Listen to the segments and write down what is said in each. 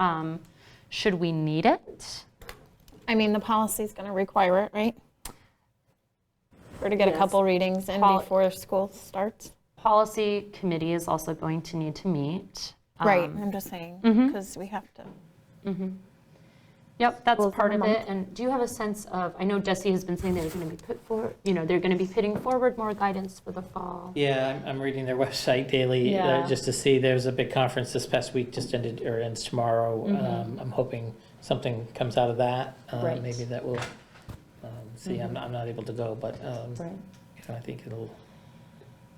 Um, Should we need it? I mean, the policy's going to require it, right? Or to get a couple readings in Poli- before school starts? Policy committee is also going to need to meet. Um, Right, Um, I'm just saying, Mm-hmm. because we have to. Yep, that's part of it. And do you have a sense of, I know Jesse has been saying they're going to be put for, you know, they're going to be putting forward more guidance for the fall. Yeah, I'm, I'm reading their website daily, Yeah. uh, just to see, there was a big conference this past week, just ended, or ends tomorrow. Um, I'm hoping something comes out of that. uh, Mm-hmm. Right. Mm-hmm. Maybe that will, um, see, I'm, I'm not able to go, but, um, you know, I think it'll,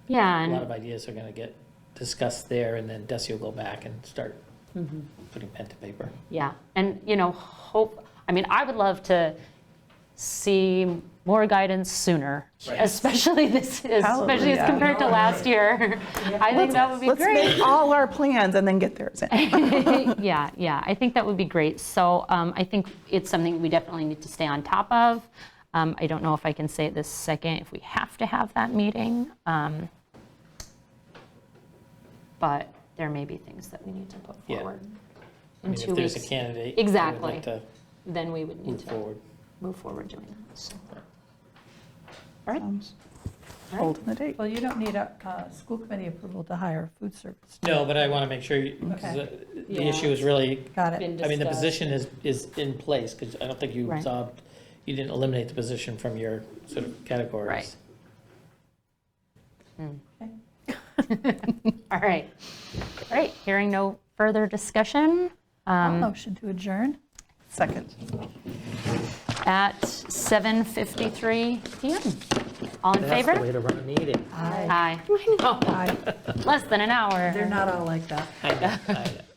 Yeah, a lot and of ideas are gonna get discussed there, and then Desi will go back and start Mm-hmm. putting pen to paper. Yeah, and, you know, hope, I mean, I would love to see more guidance sooner, Right. especially this, especially as Hallelujah. compared to last year. I think that would be Let's great. make all our plans and then get theirs in. Yeah, yeah, I think that would be great. So um, I think it's something we definitely need to stay on top of. Um, I don't know if I can say it this second, if we have to have that meeting. um, But there may be things that we need to put Yeah. forward. I In mean, two if there's a weeks, candidate. I would Exactly. like to then we would need Move to forward. move forward doing that. so. Holding the date. Well, you don't need a, uh school committee approval to hire food service. No, but I wanna make sure, you- 'cause, uh, the Yeah. issue is really Got it. I mean, the position is, is in place, because I don't think you Right. saw, you didn't eliminate the position from your sort of categories. Right. All right, great. Hearing no further discussion um, I'll Oh. Motion to adjourn. Second. at 7:53 PM. All in That's the favor? way to run a meeting. Aye. Aye. Less than an hour. They're not all like that. I know, I know.